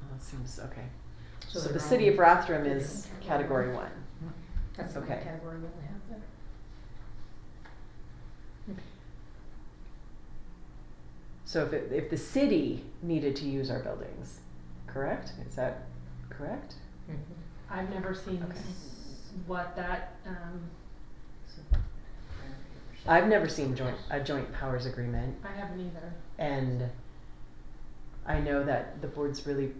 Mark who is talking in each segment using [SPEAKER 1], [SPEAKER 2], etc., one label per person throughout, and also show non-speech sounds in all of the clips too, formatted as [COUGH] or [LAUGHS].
[SPEAKER 1] that Oh, seems, okay.
[SPEAKER 2] So
[SPEAKER 1] So
[SPEAKER 2] they're
[SPEAKER 1] the city
[SPEAKER 2] all-
[SPEAKER 1] of Rathdrum is category one.
[SPEAKER 2] That's the
[SPEAKER 1] okay.
[SPEAKER 2] category we only have there.
[SPEAKER 1] So if, it- if the city needed to use our buildings, correct? Is that correct?
[SPEAKER 3] I've never seen
[SPEAKER 1] Okay.
[SPEAKER 3] s- what that, um,
[SPEAKER 1] I've never seen joint, a joint powers agreement
[SPEAKER 3] I haven't either.
[SPEAKER 1] and I know that the board's really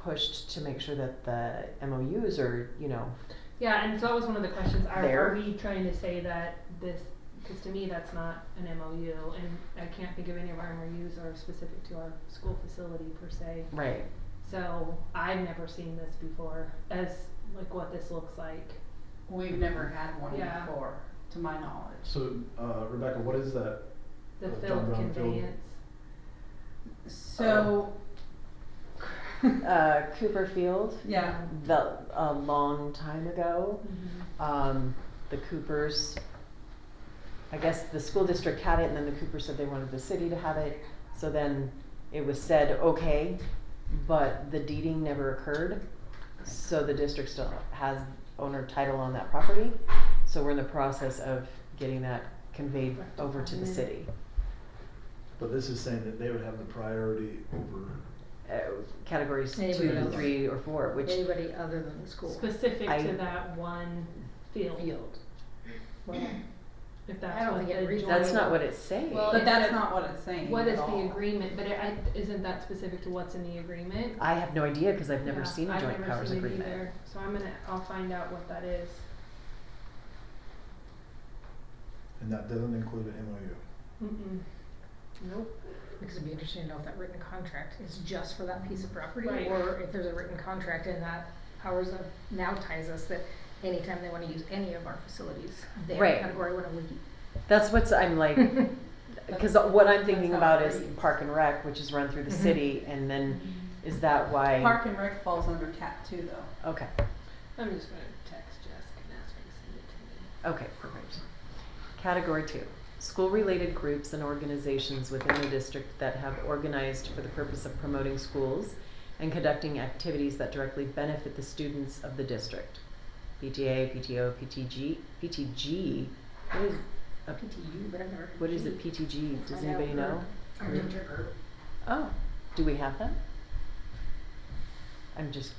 [SPEAKER 1] pushed to make sure that the MOUs are, you know,
[SPEAKER 3] Yeah, and so that was one of the questions, are,
[SPEAKER 1] There.
[SPEAKER 3] are we trying to say that this, cause to me, that's not an MOU, and I can't think of any of our MOUs are specific to our school facility per se.
[SPEAKER 1] right.
[SPEAKER 3] So I've never seen this before, as like what this looks like.
[SPEAKER 4] We've never had one
[SPEAKER 3] Yeah.
[SPEAKER 4] before, to my knowledge.
[SPEAKER 5] So, uh, Rebecca, what is that?
[SPEAKER 3] The
[SPEAKER 5] Uh, John
[SPEAKER 3] field
[SPEAKER 5] Brown field.
[SPEAKER 3] conveyance,
[SPEAKER 4] So. [LAUGHS]
[SPEAKER 1] Uh, Cooper Field,
[SPEAKER 4] Yeah,
[SPEAKER 1] the, a long time ago,
[SPEAKER 3] Mhm.
[SPEAKER 1] um, the Coopers, I guess the school district had it and then the Coopers said they wanted the city to have it. So then it was said, okay, but the deeding never occurred. So the district still has owner title on that property. So we're in the process of getting that conveyed over to the city.
[SPEAKER 5] But this is saying that they would have the priority over,
[SPEAKER 1] Uh, categories two
[SPEAKER 2] Anybody
[SPEAKER 1] to
[SPEAKER 5] else?
[SPEAKER 1] three or four, which
[SPEAKER 2] Anybody other than the school
[SPEAKER 3] specific
[SPEAKER 1] I-
[SPEAKER 3] to that one field,
[SPEAKER 2] field. Well,
[SPEAKER 3] if
[SPEAKER 2] I
[SPEAKER 3] that's
[SPEAKER 2] don't
[SPEAKER 3] what
[SPEAKER 2] think it
[SPEAKER 3] the
[SPEAKER 2] reads-
[SPEAKER 3] joint-
[SPEAKER 1] that's not what it's saying.
[SPEAKER 3] Well,
[SPEAKER 4] but
[SPEAKER 3] it-
[SPEAKER 4] that's not what it's saying
[SPEAKER 3] What
[SPEAKER 4] at
[SPEAKER 3] is the
[SPEAKER 4] all.
[SPEAKER 3] agreement, but it, I, isn't that specific to what's in the agreement?
[SPEAKER 1] I have no idea because I've never
[SPEAKER 3] Yeah,
[SPEAKER 1] seen a
[SPEAKER 3] I've
[SPEAKER 1] joint
[SPEAKER 3] never
[SPEAKER 1] powers
[SPEAKER 3] seen it
[SPEAKER 1] agreement.
[SPEAKER 3] either, So I'm gonna, I'll find out what that is.
[SPEAKER 5] and that doesn't include an MOU.
[SPEAKER 3] Mm-mm. Nope.
[SPEAKER 2] Because it'd be interesting to know if that written contract is just for that piece of property,
[SPEAKER 3] Right.
[SPEAKER 2] or if there's a written contract and that powers of now ties us that anytime they wanna use any of our facilities, they have
[SPEAKER 1] Right.
[SPEAKER 2] a category one of
[SPEAKER 1] That's what's I'm like,
[SPEAKER 4] [LAUGHS]
[SPEAKER 1] because what I'm thinking
[SPEAKER 4] That's how
[SPEAKER 1] about
[SPEAKER 4] it
[SPEAKER 1] is
[SPEAKER 4] reads.
[SPEAKER 1] Park and Rec, which is run through the
[SPEAKER 2] Mhm.
[SPEAKER 1] city, and then is that why?
[SPEAKER 4] Mm-hmm. Park and Rec falls under cat two though.
[SPEAKER 1] Okay,
[SPEAKER 3] I'm just gonna text Jessica and ask her to send it to me.
[SPEAKER 1] okay, perfect. Category two, school-related groups and organizations within the district that have organized for the purpose of promoting schools and conducting activities that directly benefit the students of the district. PTA, PTO, PTG, PTG, what is, a-
[SPEAKER 2] PTU, but I've never.
[SPEAKER 1] what is it, PTG, does
[SPEAKER 2] Find out
[SPEAKER 1] anybody
[SPEAKER 2] for-
[SPEAKER 1] know?
[SPEAKER 2] Our teacher group.
[SPEAKER 1] Oh, do we have them? I'm just,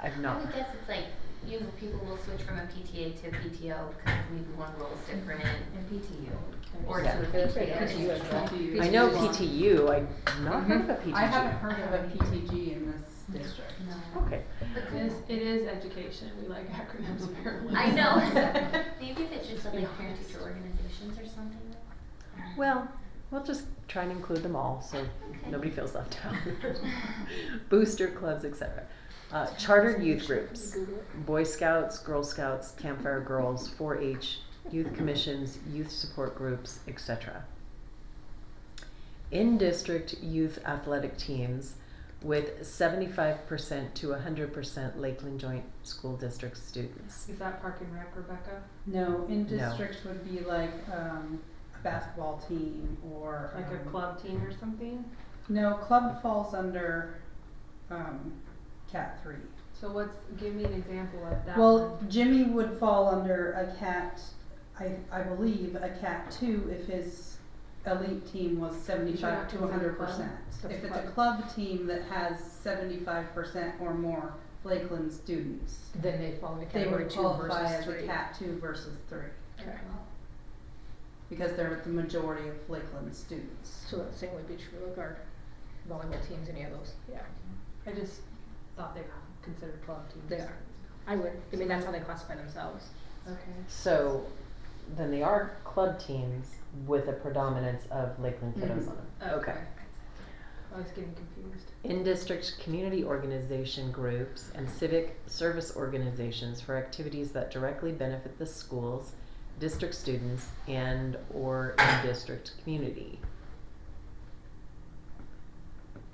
[SPEAKER 1] I've
[SPEAKER 6] I
[SPEAKER 1] not.
[SPEAKER 6] would guess it's like usually people will switch from a PTA to a PTO because maybe one role is different in, in PTU or
[SPEAKER 1] Yeah.
[SPEAKER 6] to a
[SPEAKER 2] PTU
[SPEAKER 6] PTA.
[SPEAKER 2] as well.
[SPEAKER 4] PTU.
[SPEAKER 1] I know
[SPEAKER 4] PTG.
[SPEAKER 1] PTU, I've not heard of a PTG.
[SPEAKER 4] I haven't heard of a PTG in this district.
[SPEAKER 6] No.
[SPEAKER 1] Okay,
[SPEAKER 6] But
[SPEAKER 3] It is,
[SPEAKER 6] could-
[SPEAKER 3] it is education, we like [LAUGHS] acronyms apparently.
[SPEAKER 6] I know.
[SPEAKER 1] [LAUGHS]
[SPEAKER 6] Maybe if it's just like parent teacher organizations or something.
[SPEAKER 1] well, we'll just try and include them all, so
[SPEAKER 6] Okay.
[SPEAKER 1] nobody feels left out. [LAUGHS] Booster clubs, etc. Uh, chartered youth groups, Boy Scouts, Girl Scouts, Campfire Girls, 4-H, youth commissions, youth support groups, etc. In-district youth athletic teams with 75% to 100% Lakeland Joint School District students.
[SPEAKER 3] [LAUGHS] Is that Park and Rec, Rebecca?
[SPEAKER 4] No, in
[SPEAKER 1] No.
[SPEAKER 4] districts would be like, um, a basketball team or.
[SPEAKER 3] Like a
[SPEAKER 4] um,
[SPEAKER 3] club team or something?
[SPEAKER 4] No, club falls under, um, cat three.
[SPEAKER 3] So what's, give me an example of that
[SPEAKER 4] Well,
[SPEAKER 3] one.
[SPEAKER 4] Jimmy would fall under a cat, I, I believe, a cat two if his elite team was seventy-five to
[SPEAKER 3] Sure, it's a
[SPEAKER 4] hundred
[SPEAKER 3] club.
[SPEAKER 4] percent.
[SPEAKER 2] That's
[SPEAKER 4] If it's
[SPEAKER 2] club.
[SPEAKER 4] a club team that has seventy-five percent or more Lakeland students,
[SPEAKER 2] Then they fall into
[SPEAKER 4] they
[SPEAKER 2] category
[SPEAKER 4] would
[SPEAKER 2] two
[SPEAKER 4] qualify
[SPEAKER 2] versus
[SPEAKER 4] as a
[SPEAKER 2] three.
[SPEAKER 4] cat two versus three,
[SPEAKER 2] Okay.
[SPEAKER 4] because they're the majority of Lakeland students.
[SPEAKER 2] So that same would be true of our volleyball teams, any of those, yeah.
[SPEAKER 3] I just thought they were considered club teams.
[SPEAKER 2] They are. I would, I mean, that's how they classify themselves.
[SPEAKER 3] Okay.
[SPEAKER 1] So then they are club teams with a predominance of Lakeland kiddos
[SPEAKER 4] Mhm.
[SPEAKER 1] on them.
[SPEAKER 3] Oh, I was getting confused.
[SPEAKER 1] in district community organization groups and civic service organizations for activities that directly benefit the schools district students and or in district community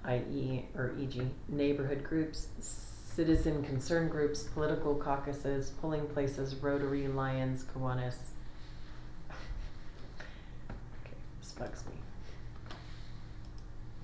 [SPEAKER 1] i.e. e, or e.g. neighborhood groups citizen concern groups political caucuses polling places rotary lions kiwanis [LAUGHS] okay this bugs me